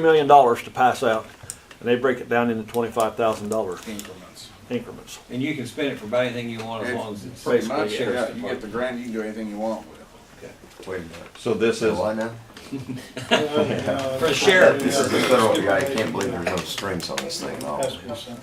million dollars to pass out, and they break it down into twenty-five thousand dollar increments. increments. And you can spend it for about anything you want as long as it's. It's pretty much, basically yeah, sheriff's you get the department. grant, you can do anything you want with it. Wait a minute. So this is, So I know. For the sheriff. This is the federal guy. I can't believe there's no strings on this thing. obviously.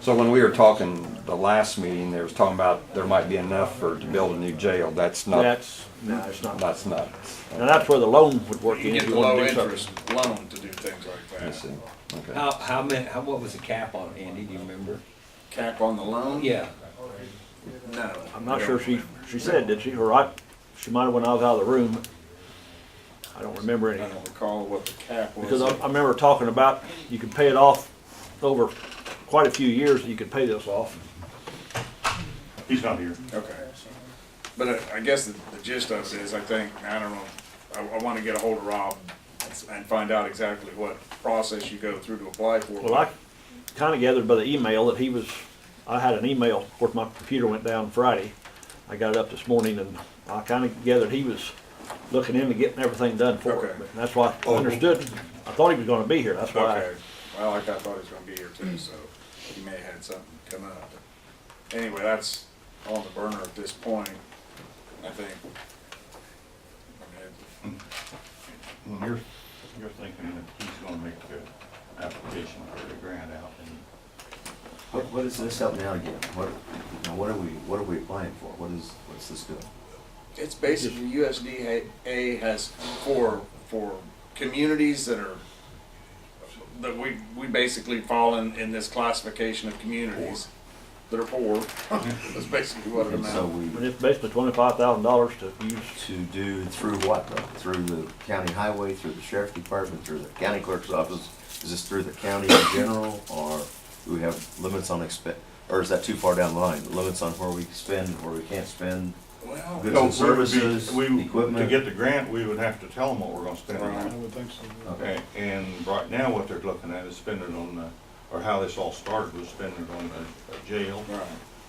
so when we were talking the last meeting, there was talking about there might be enough for, to build a new jail. That's not, That's, no, it's not. that's nuts. And that's where the loan would work You in. can if get the wanna low do something. interest loan to do things like I that. see. Okay. How, how many, how, what was the cap on it, Andy, do you remember? Cap on the loan? Yeah, No. I'm not sure she, she said, did she, or I, she might have when I was out of the room. I don't remember I any, don't recall what the cap was. because I, I remember talking about, you could pay it off over quite a few years, you could pay this off. He's not here. Okay. But I, I guess the the gist of it is, I think, I don't know, I, I wanna get a hold of Rob and s- and find out exactly what process you go through to apply for. Well, I kind of gathered by the email that he was, I had an email, of course, my computer went down Friday. I got it up this morning and I kind of gathered he was looking into getting everything done for Okay. it. But That's why I understood, I thought he was gonna be here, that's why. Okay, well, like I thought he was gonna be here too, so he may have had something come up. Anyway, that's on the burner at this point, I think. I mean, You're, you're thinking that he's gonna make the application for the grant out and What, what is this out now again? What, now what are we, what are we applying for? What is, what's this doing? It's basically USDA has for, for communities that are, that we, we basically fall in, in this classification of communities that are poor. That's basically what it And so amounts. we, But it's basically twenty-five thousand dollars to use, to do through what though? Through the county highway, through the sheriff department, through the county clerk's office? Is this through the county in general or do we have limits on expen, or is that too far down the line? Limits on where we can spend, where we can't spend? Well, Goods No, we and would be- services, we- To equipment? get the grant, we would have to tell them what we're gonna spend it Right. on. Okay. And, and right now, what they're looking at is spending on the, or how this all started was spending on the the jail. Right.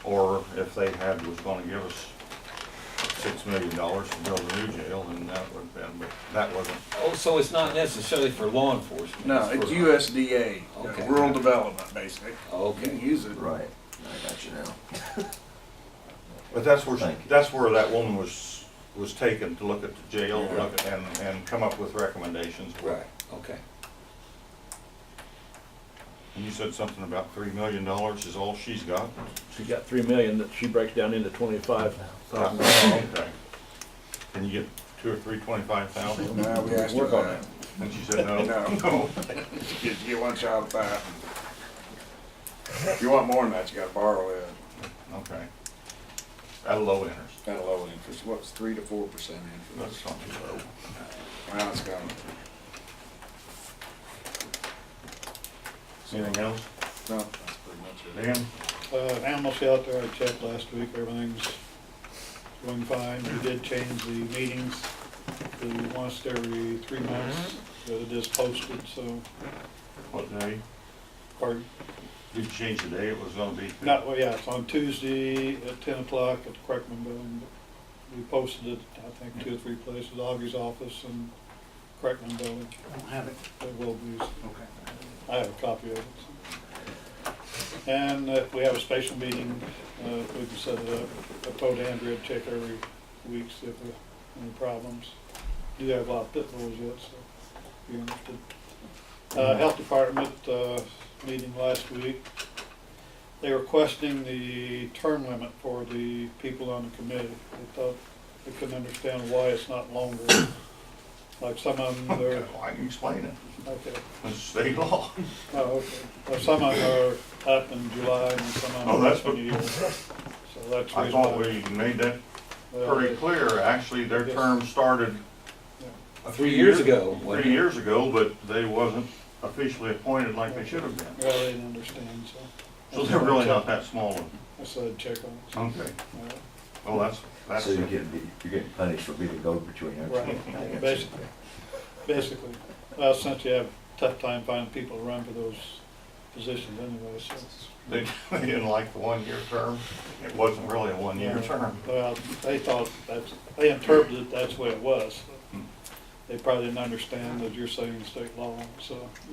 Or if they had, was gonna give us six million dollars to build a new jail, then that would have been, but that wasn't. oh, so it's not necessarily for law enforcement? No, it's for- USDA, Okay. rural development, basically. You can Okay, use it. Right, I got you now. But that's where, Thank you. that's where that woman was, was taken to look at the jail, look at, and, and come up with recommendations. right, okay. And you said something about three million dollars is all she's got? she got three million that she breaks down into twenty-five thousand. Oh, okay. Can you get two or three twenty-five thousand? No, we asked her Work on Mm-hmm. that. And she said, no. No. No. You, you want shot at that. If you want more than that, you gotta borrow it Okay. At low interest, at a low interest, what's three to four percent that's interest? something low. Wow, it's gone. Anything else? No, that's pretty much it. Dan? Uh, animal shelter, I checked last week, everything's going fine. We did change the meetings to once every three months, so it is posted, so, What day? or, Did you change the day it was gonna be? not, well, yeah, it's on Tuesday at ten o'clock at the Crackman Building. We posted it, I think, two or three places, Augie's office and Crackman Building. I don't have it. It will be. Okay. I have a copy of it. so. And uh, we have a special meeting, uh, we can set it up, I told Andrea to check every week, see if there are any problems. Do have a lot of pitfalls yet, so if you're interested. Uh, Health Department, uh, meeting last week, they were questioning the term limit for the people on the committee. They thought, they couldn't understand why it's not longer. Like some of them, they're, Well, I can explain it. okay, It's state law. oh, okay. Well, some of them are up in July and some of them Oh, are that's up in the year. what- So that's the I reason thought why. we made that well, pretty clear. Actually, their Yes. term started Three years ago, wasn't Three it? years ago, but they wasn't officially appointed like they should have they- been. Well, they didn't understand, so. So they're really not that small. I said, check on Okay. it. Well, that's, that's. So you're getting, you're getting punished for being a go-between, aren't Right. you? I got you. Basically. Basically, well, since you have a tough time finding people to run for those positions anyway, so. They they didn't like the one-year term. It wasn't really a one-year term. Well, they thought that's, they interpreted Hmm. it that's the way it was. They probably didn't understand that you're saying state law, so.